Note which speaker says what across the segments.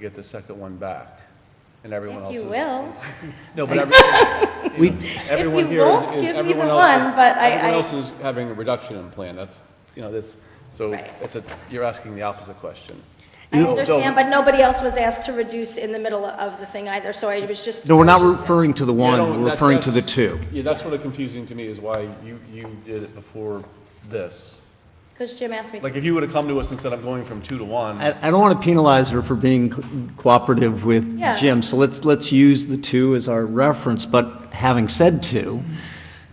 Speaker 1: get the second one back, and everyone else
Speaker 2: If
Speaker 1: is...
Speaker 2: you will.
Speaker 1: No, but every-
Speaker 3: We,
Speaker 1: everyone
Speaker 2: you
Speaker 1: here is...
Speaker 2: won't
Speaker 1: is-
Speaker 2: give me
Speaker 1: everyone
Speaker 2: the
Speaker 1: else is-
Speaker 2: one, but I-
Speaker 1: Everyone
Speaker 2: I-
Speaker 1: else is having a reduction in plan, that's, you know, this, so
Speaker 2: Right.
Speaker 1: it's a, you're asking the opposite question.
Speaker 2: I
Speaker 1: No, no.
Speaker 2: understand, but nobody else was asked to reduce in the middle of the thing either, so I was just.
Speaker 3: no, we're not
Speaker 2: I was just-
Speaker 3: referring to the
Speaker 1: Yeah, no,
Speaker 3: one, we're
Speaker 1: that-
Speaker 3: referring to the
Speaker 1: that's-
Speaker 3: two.
Speaker 1: Yeah, that's sort of confusing to me, is why you, you did it before this.
Speaker 2: Because Jim asked me to.
Speaker 1: Like, if you would've come to us and said, I'm going from two to one,
Speaker 3: I, I don't want to penalize her for being co- cooperative with
Speaker 2: Yeah.
Speaker 3: Jim, so let's, let's use the two as our reference, but having said two,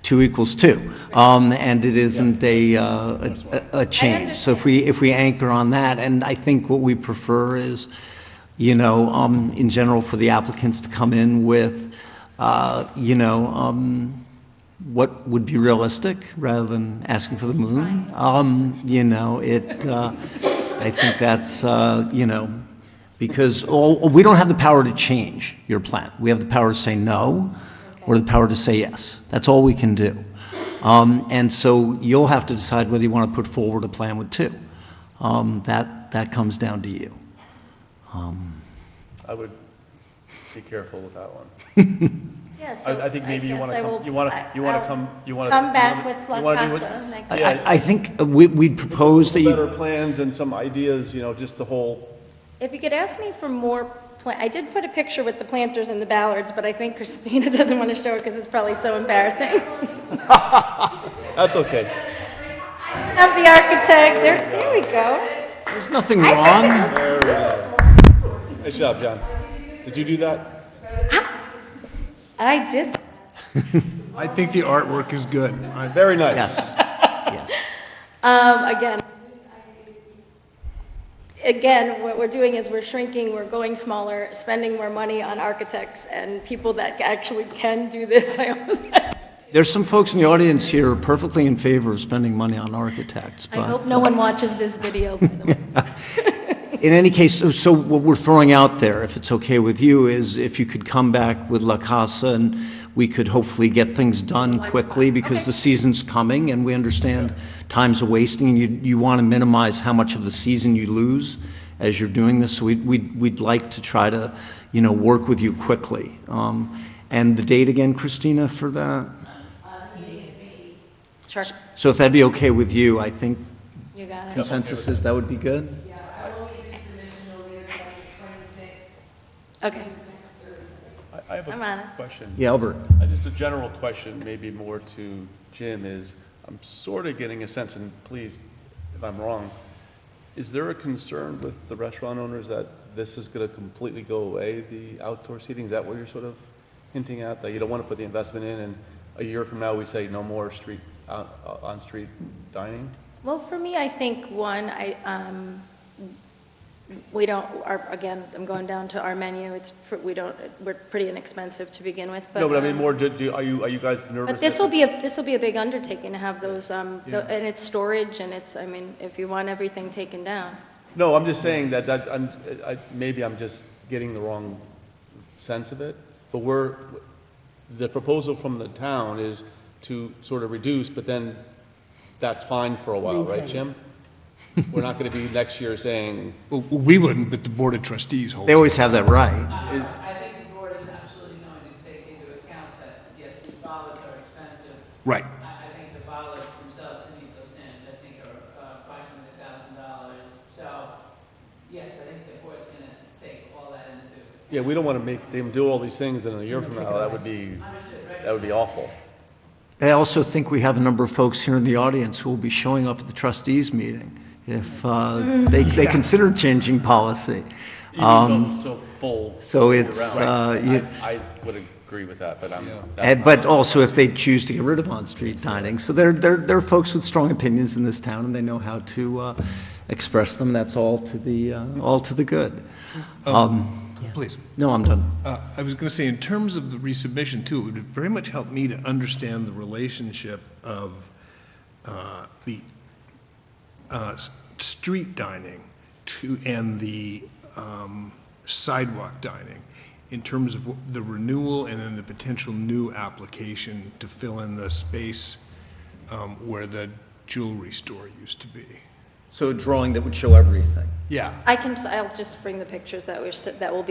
Speaker 3: two equals two. Um, and it isn't a, uh, a, a- a change. So if we, if we anchor on that, and I think what we prefer is, you know, um, in general, for the applicants to come in with, uh, you know, um, what would be realistic rather than asking for the moon. Um, you know, it, uh, I think that's, uh, you know, because all, we don't have the power to change your plan. We have the power to say no or the power to say yes. That's all we can do. Um, and so you'll have to decide whether you want to put forward a plan with two. Um, that, that comes down to you.
Speaker 1: I would be careful with that one.
Speaker 2: Yeah, so
Speaker 1: I, I think maybe you
Speaker 2: guess
Speaker 1: wanna,
Speaker 2: I
Speaker 1: come-
Speaker 2: will-
Speaker 1: you wanna,
Speaker 2: I-
Speaker 1: you wanna
Speaker 2: I'll
Speaker 1: come, you wanna.
Speaker 2: Come
Speaker 1: you
Speaker 2: back
Speaker 1: wanna-
Speaker 2: with
Speaker 1: you
Speaker 2: La
Speaker 1: wanna do what-
Speaker 2: Casa next.
Speaker 3: I,
Speaker 1: Yeah.
Speaker 3: I, I think we, we'd propose that
Speaker 1: Better
Speaker 3: you,
Speaker 1: plans and some ideas, you know, just the whole,
Speaker 2: If you could ask me for more, pla- I did put a picture with the planters and the ballards, but I think Christina doesn't want to show it because it's probably so embarrassing.
Speaker 1: that's okay.
Speaker 2: Have the architect, there, there we go.
Speaker 3: there's nothing wrong.
Speaker 1: Nice job, John. Did you do that?
Speaker 2: I did,
Speaker 4: I think the artwork is good. I-
Speaker 1: Very nice.
Speaker 3: Yes, yes.
Speaker 2: um, again. Again, what we're doing is we're shrinking, we're going smaller, spending more money on architects and people that actually can do this. I almost,
Speaker 3: There's some folks in the audience here who are perfectly in favor of spending money on architects,
Speaker 2: I
Speaker 3: but.
Speaker 2: hope no one watches this video, by the way.
Speaker 3: In any case, so- so what we're throwing out there, if it's okay with you, is if you could come back with La Casa and we could hopefully get things done quickly because the season's coming and we understand time's a wasting and you, you want to minimize how much of the season you lose as you're doing this. So we'd, we'd, we'd like to try to, you know, work with you quickly. Um, and the date again, Christina, for that?
Speaker 2: Sure,
Speaker 3: So if that'd be okay with you, I think
Speaker 2: you got it.
Speaker 3: consensus is that would be good?
Speaker 2: Okay,
Speaker 1: I- I have
Speaker 2: I'm on it.
Speaker 1: a question.
Speaker 3: Yeah, Albert?
Speaker 1: Uh, Just a general question, maybe more to Jim, is I'm sort of getting a sense, and please, if I'm wrong, is there a concern with the restaurant owners that this is going to completely go away, the outdoor seating? Is that what you're sort of hinting at, that you don't want to put the investment in, and a year from now, we say no more street, out- uh, on-street dining?
Speaker 2: well, for me, I think, one, I, um, we don't, our, again, I'm going down to our menu, it's, pr- we don't, we're pretty inexpensive to begin with, but.
Speaker 1: No, but I mean,
Speaker 2: um,
Speaker 1: more, do- do, are you, are you guys nervous?
Speaker 2: But this
Speaker 1: that-
Speaker 2: will be, a this will be a big undertaking to have those, um, the-
Speaker 1: Yeah.
Speaker 2: and it's storage, and it's, I mean, if you want everything taken down.
Speaker 1: No, I'm just saying that, that, I'm, I, maybe I'm just getting the wrong sense of it, but we're, the proposal from the town is to sort of reduce, but then that's fine for a while, right, Jim? We're not gonna be next year saying,
Speaker 4: Well, We wouldn't, but the Board of Trustees hold.
Speaker 3: They always have that right.
Speaker 1: is,
Speaker 5: I think the board is absolutely going to take into account that, yes, these bollards are expensive.
Speaker 4: Right.
Speaker 5: I, I think the bollards themselves, to meet those standards, I think are uh, approximately a thousand dollars. So, yes, I think the board's gonna take all that into.
Speaker 1: yeah, we don't wanna make them do all these things and in a year from now, that would be, that would be awful.
Speaker 3: I also think we have a number of folks here in the audience who will be showing up at the trustees meeting if uh, they, they consider changing policy.
Speaker 1: Even though it's so full.
Speaker 3: Um, so
Speaker 1: year
Speaker 3: it's,
Speaker 1: round.
Speaker 3: uh, you-
Speaker 1: I I would agree with that, but I'm. that's
Speaker 3: And,
Speaker 1: my-
Speaker 3: but also if they choose to get rid of on-street dining. So there, there, there are folks with strong opinions in this town and they know how to uh, express them. That's all to the, uh, all to the good.
Speaker 4: Please.
Speaker 3: No, I'm done.
Speaker 4: Uh, I was going to say, in terms of the resubmission too, it would very much help me to understand the relationship of uh, the uh, s- street dining to, and the um, sidewalk dining in terms of wh- the renewal and then the potential new application to fill in the space um, where the jewelry store used to be.
Speaker 6: So a drawing that would show everything.
Speaker 4: Yeah.
Speaker 2: I can, I'll just bring the pictures that were, s- that will be